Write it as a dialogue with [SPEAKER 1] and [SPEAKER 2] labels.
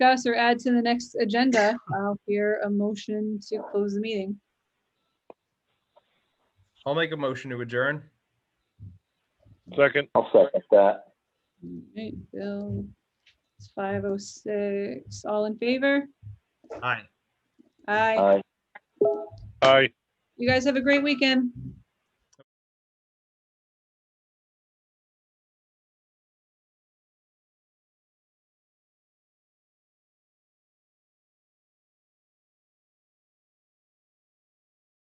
[SPEAKER 1] discuss or add to the next agenda, I'll hear a motion to close the meeting.
[SPEAKER 2] I'll make a motion to adjourn.
[SPEAKER 3] Second,
[SPEAKER 4] I'll second that.
[SPEAKER 1] Right, Bill, it's five oh six, all in favor?
[SPEAKER 2] Aye.
[SPEAKER 1] Aye.
[SPEAKER 4] Aye.
[SPEAKER 3] aye.
[SPEAKER 1] You guys have a great weekend.